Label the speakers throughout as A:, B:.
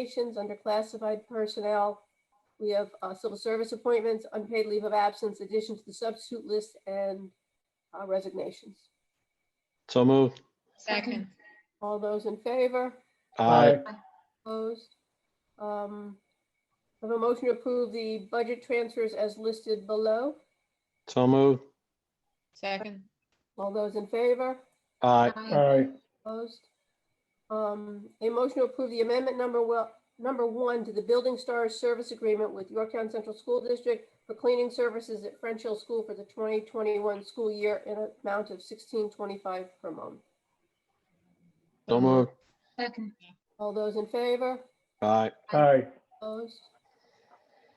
A: Communications under classified personnel. We have uh, civil service appointments, unpaid leave of absence, addition to the substitute list, and uh, resignations.
B: So moved.
C: Second.
A: All those in favor?
B: Aye.
A: Opposed? Um, I Have a motion to approve the budget transfers as listed below.
B: So moved.
C: Second.
A: All those in favor?
B: Aye.
D: Aye.
A: Opposed? Um, A motion to approve the amendment number well, number one to the Building Stars Service Agreement with Yorktown Central School District for cleaning services at French Hill School for the 2021 school year in an amount of 1625 per month.
B: So moved.
C: Second.
A: All those in favor?
B: Aye.
D: Aye.
A: Opposed?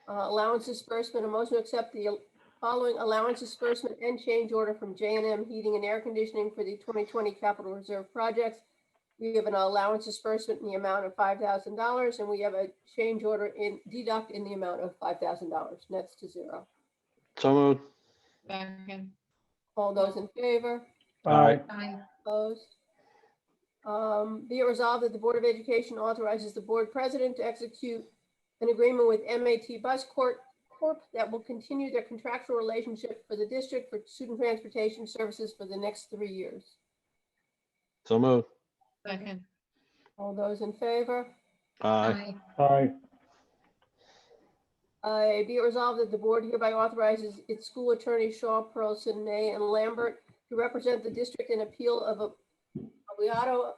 A: Uh, Allowance disbursement, a motion to accept the following allowance disbursement and change order from J and M Heating and Air Conditioning for the 2020 Capital Reserve Projects. We have an allowance disbursement in the amount of $5,000, and we have a change order in, deduct in the amount of $5,000, nets to zero.
B: So moved.
C: Second.
A: All those in favor?
D: Aye.
C: Aye.
A: Opposed? Um, Be it resolved that the Board of Education authorizes the board president to execute an agreement with MAT Bus Corp. Corp. that will continue their contractual relationship for the district for student transportation services for the next three years.
B: So moved.
C: Second.
A: All those in favor?
B: Aye.
D: Aye.
A: Uh, Be it resolved that the board hereby authorizes its school attorney Shaw, Pearlson, May, and Lambert to represent the district in appeal of a Abiato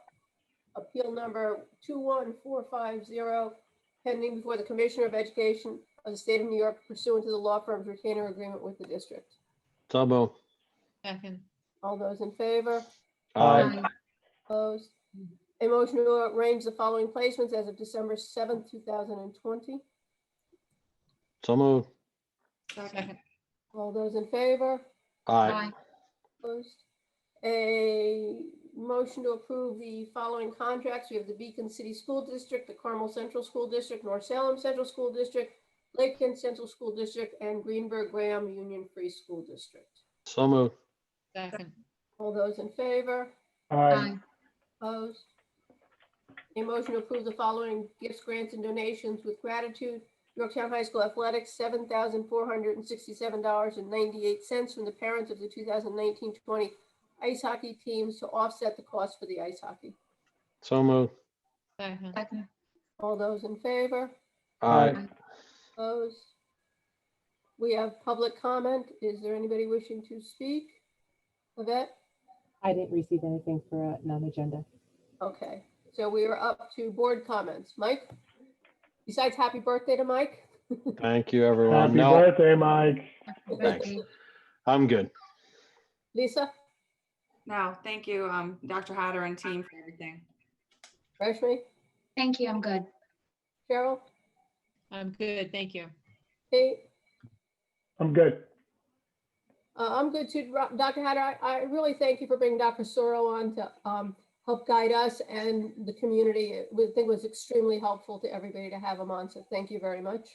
A: Appeal Number 21450 pending before the Commissioner of Education of the State of New York pursuant to the law firm's retainer agreement with the district.
B: So moved.
C: Second.
A: All those in favor?
B: Aye.
A: Opposed? A motion to arrange the following placements as of December 7th, 2020.
B: So moved.
C: Second.
A: All those in favor?
B: Aye.
A: Opposed? A motion to approve the following contracts. We have the Beacon City School District, the Carmel Central School District, North Salem Central School District, Lake Kent Central School District, and Greenberg Graham Union Free School District.
B: So moved.
C: Second.
A: All those in favor?
D: Aye.
A: Opposed? A motion to approve the following gifts, grants, and donations with gratitude. Yorktown High School Athletics, seven thousand four hundred and sixty-seven dollars and ninety-eight cents from the parents of the 2019-20 ice hockey teams to offset the cost for the ice hockey.
B: So moved.
C: Second.
A: All those in favor?
B: Aye.
A: Opposed? We have public comment. Is there anybody wishing to speak? Yvette?
E: I didn't receive anything for a non-agenda.
A: Okay, so we are up to board comments. Mike? Besides happy birthday to Mike?
B: Thank you, everyone.
D: Happy
B: No,
D: birthday, Mike.
B: Thanks. I'm good.
A: Lisa?
F: No, thank you, um, Dr. Hatter and team for everything.
A: Rashmi?
G: Thank you, I'm good.
A: Cheryl?
C: I'm good, thank you.
A: Kate?
D: I'm good.
A: Uh, I'm good too. Ro- Dr. Hatter, I, I really thank you for bringing Dr. Soro on to, um, help guide us and the community. It was, I think was extremely helpful to everybody to have him on, so thank you very much.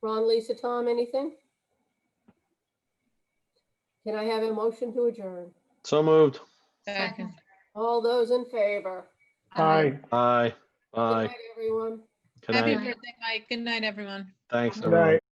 A: Ron, Lisa, Tom, anything? Can I have a motion to adjourn?
B: So moved.
C: Second.
A: All those in favor?
D: Aye.
B: Aye.
A: Good
B: Aye.
A: night, Everyone?
B: Good
C: Happy
B: night.
C: birthday, Mike. Good night, everyone.
B: Thanks,
D: Good night.
B: everyone.